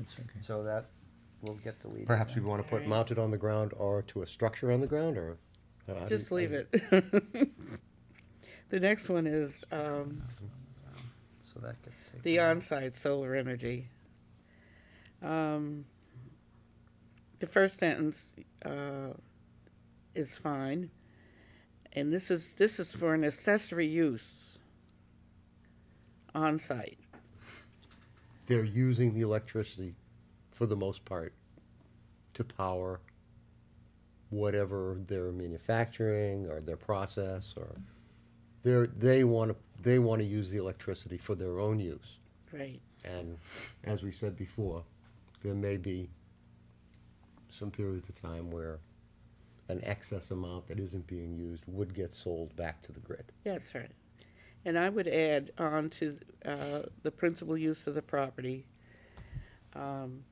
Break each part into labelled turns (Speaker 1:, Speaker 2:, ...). Speaker 1: That's okay.
Speaker 2: So that will get deleted.
Speaker 3: Perhaps we want to put
Speaker 4: Alright.
Speaker 3: mounted on the ground or to a structure on the ground or? uh, how do you-
Speaker 4: Just leave it. The next one is um,
Speaker 2: So that gets taken.
Speaker 4: the
Speaker 2: out.
Speaker 4: on-site solar energy. Um, The first sentence uh, is fine, and this is, this is for an accessory use on-site.
Speaker 3: They're using the electricity for the most part to power whatever they're manufacturing or their process or they're, they want to, they want to use the electricity for their own use.
Speaker 4: Right.
Speaker 3: And as we said before, there may be some periods of time where an excess amount that isn't being used would get sold back to the grid.
Speaker 4: That's right. And I would add on to uh, the principal use of the property. um,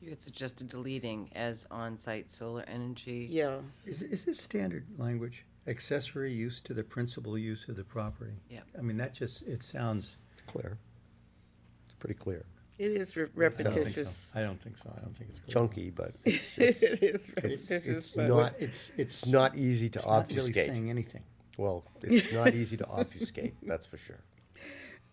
Speaker 5: You had suggested deleting as on-site solar energy.
Speaker 4: Yeah,
Speaker 1: Is, is this standard language, accessory use to the principal use of the property?
Speaker 5: Yep.
Speaker 1: I mean, that just, it sounds.
Speaker 3: Clear. It's pretty clear.
Speaker 4: it is re-
Speaker 1: I don't think so.
Speaker 4: repetitious.
Speaker 1: I don't think so. I don't think it's. clear.
Speaker 3: Chunky, but it's, it's
Speaker 4: It is
Speaker 3: it's
Speaker 4: repetitious,
Speaker 1: But
Speaker 4: but
Speaker 3: not-
Speaker 1: what- It's, it's.
Speaker 3: not easy to
Speaker 1: it's not really
Speaker 3: obfuscate.
Speaker 1: Saying anything.
Speaker 3: Well, it's not easy to obfuscate, that's for sure.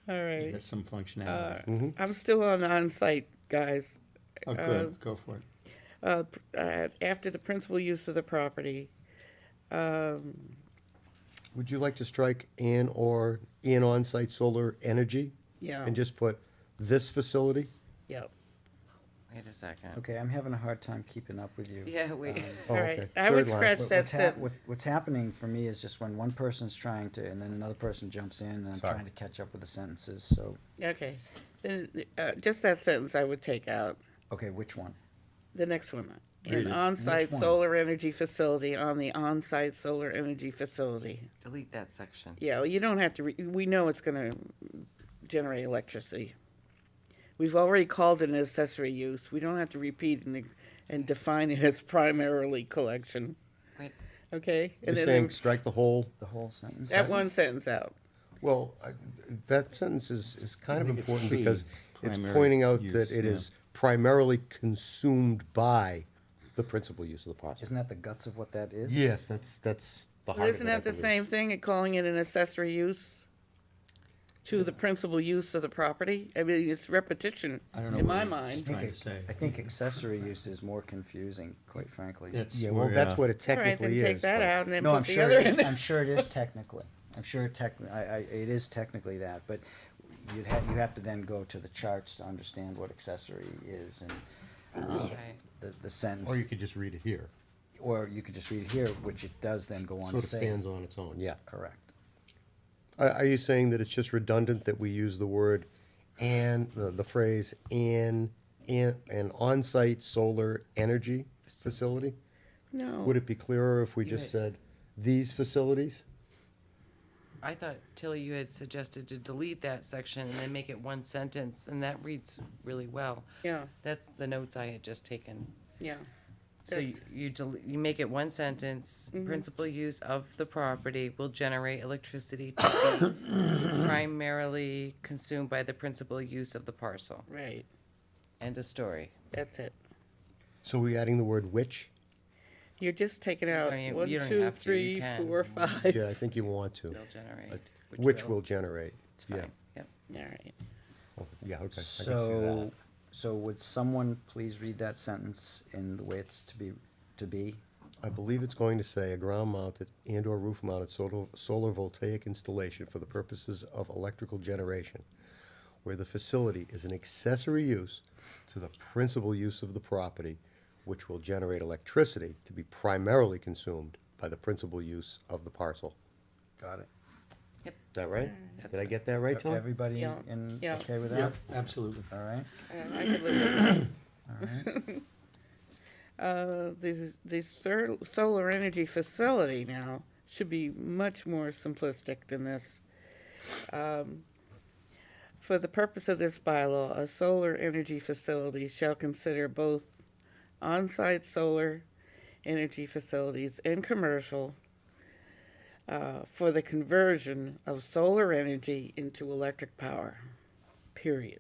Speaker 4: all
Speaker 1: It
Speaker 4: right.
Speaker 1: has some functionality.
Speaker 3: Mhm.
Speaker 4: I'm still on on-site, guys.
Speaker 1: Oh, good, go for it.
Speaker 4: Uh, pr- uh, After the principal use of the property, um,
Speaker 3: Would you like to strike "and" or "in on-site solar energy"?
Speaker 4: yeah,
Speaker 3: And just put "this facility"?
Speaker 4: yeah.
Speaker 5: Wait a second.
Speaker 6: Okay, I'm having a hard time keeping up with you.
Speaker 5: Yeah, we,
Speaker 6: Um,
Speaker 3: Oh,
Speaker 4: All right,
Speaker 3: okay.
Speaker 4: I would
Speaker 3: Third line.
Speaker 4: scratch
Speaker 6: what-
Speaker 4: that
Speaker 6: What's, hap-
Speaker 4: sentence.
Speaker 6: what- what's happening for me is just when one person's trying to, and then another person jumps in, and I'm
Speaker 3: Sorry.
Speaker 6: trying to catch up with the sentences, so,
Speaker 4: Okay, then, uh, just that sentence I would take out.
Speaker 6: okay, which one?
Speaker 4: The next one,
Speaker 1: Read
Speaker 4: an
Speaker 1: it.
Speaker 4: on-site
Speaker 6: Which one?
Speaker 4: solar energy facility on the on-site solar energy facility.
Speaker 5: delete that section.
Speaker 4: Yeah, well, you don't have to, re- we know it's gonna generate electricity. We've already called it an accessory use, we don't have to repeat and, and define it as primarily collection,
Speaker 5: Wait,
Speaker 4: okay?
Speaker 3: You're
Speaker 4: And
Speaker 3: saying
Speaker 4: then
Speaker 3: strike the whole,
Speaker 6: The whole sentence?
Speaker 4: that one sentence out,
Speaker 3: well, I- that sentence is, is kind of
Speaker 1: think it's
Speaker 3: important
Speaker 1: key,
Speaker 3: because it's
Speaker 1: primary
Speaker 3: pointing out
Speaker 1: use,
Speaker 3: that it
Speaker 1: yeah.
Speaker 3: is primarily consumed by the principal use of the process.
Speaker 6: Isn't that the guts of what that is?
Speaker 3: Yes, that's, that's the heart of it.
Speaker 4: isn't
Speaker 3: I
Speaker 4: that the
Speaker 3: believe.
Speaker 4: same thing, and calling it an accessory use? To the principal use of the property, I mean, it's repetition
Speaker 1: I don't know
Speaker 4: in
Speaker 1: what it
Speaker 4: my
Speaker 1: is.
Speaker 6: I
Speaker 4: mind.
Speaker 6: think
Speaker 1: Trying
Speaker 6: ac-
Speaker 1: to say.
Speaker 6: I think accessory use is more confusing, quite frankly.
Speaker 1: It's
Speaker 3: Yeah, well,
Speaker 1: where,
Speaker 3: that's
Speaker 1: uh,
Speaker 3: what it
Speaker 4: All right, then
Speaker 3: technically is.
Speaker 4: take that
Speaker 3: but-
Speaker 4: out and then
Speaker 6: No, I'm
Speaker 4: put the
Speaker 6: sure,
Speaker 4: other
Speaker 6: it
Speaker 4: in
Speaker 6: is-
Speaker 4: there.
Speaker 6: I'm sure it is technically, I'm sure it tech, I, I, it is technically that, but you'd have, you have to then go to the charts to understand what accessory is and, um,
Speaker 5: Right.
Speaker 6: the, the sentence.
Speaker 3: Or you could just read it here.
Speaker 6: or you could just read it here, which it does then go on
Speaker 3: Sort
Speaker 6: to
Speaker 3: of
Speaker 6: say.
Speaker 3: stands on its own, yeah.
Speaker 6: Correct.
Speaker 3: Are, are you saying that it's just redundant that we use the word and, the, the phrase and, and, an on-site solar energy facility?
Speaker 4: No.
Speaker 3: Would it be clearer if we just
Speaker 5: Yeah.
Speaker 3: said these facilities?
Speaker 5: I thought, Tilly, you had suggested to delete that section and then make it one sentence, and that reads really well.
Speaker 4: Yeah,
Speaker 5: That's the notes I had just taken.
Speaker 4: yeah.
Speaker 5: So you, you del- you make it one sentence, principal use of the property will generate electricity to be primarily consumed by the principal use of the parcel.
Speaker 4: Right,
Speaker 5: End of story.
Speaker 4: that's it.
Speaker 3: So we adding the word which?
Speaker 4: You're just taking out
Speaker 5: don't even-
Speaker 4: one,
Speaker 5: you don't
Speaker 4: two,
Speaker 5: have to, you
Speaker 4: three,
Speaker 5: can.
Speaker 4: four, five.
Speaker 3: Yeah, I think you want to.
Speaker 5: Will generate.
Speaker 3: Which will generate,
Speaker 5: It's
Speaker 3: yeah.
Speaker 5: fine. Yep.
Speaker 4: All right.
Speaker 3: Oh, Yeah, okay, I can see that.
Speaker 6: So, so would someone please read that sentence in the way it's to be, to be?
Speaker 3: I believe it's going to say a ground-mounted and/or roof-mounted solar solar voltaic installation for the purposes of electrical generation, where the facility is an accessory use to the principal use of the property, which will generate electricity to be primarily consumed by the principal use of the parcel.
Speaker 6: Got it.
Speaker 3: Is that right?
Speaker 5: Mm. That's
Speaker 3: Did I
Speaker 5: right.
Speaker 3: get that right, Tom?
Speaker 6: Everybody
Speaker 4: Yeah,
Speaker 6: in,
Speaker 4: yeah.
Speaker 6: okay with that?
Speaker 1: Yep, absolutely.
Speaker 6: All right,
Speaker 4: Uh, I could live with that.
Speaker 6: all right.
Speaker 4: Uh, the, the sol- solar energy facility now should be much more simplistic than this. Um, For the purpose of this bylaw, a solar energy facility shall consider both on-site solar energy facilities and commercial uh, for the conversion of solar energy into electric power, period.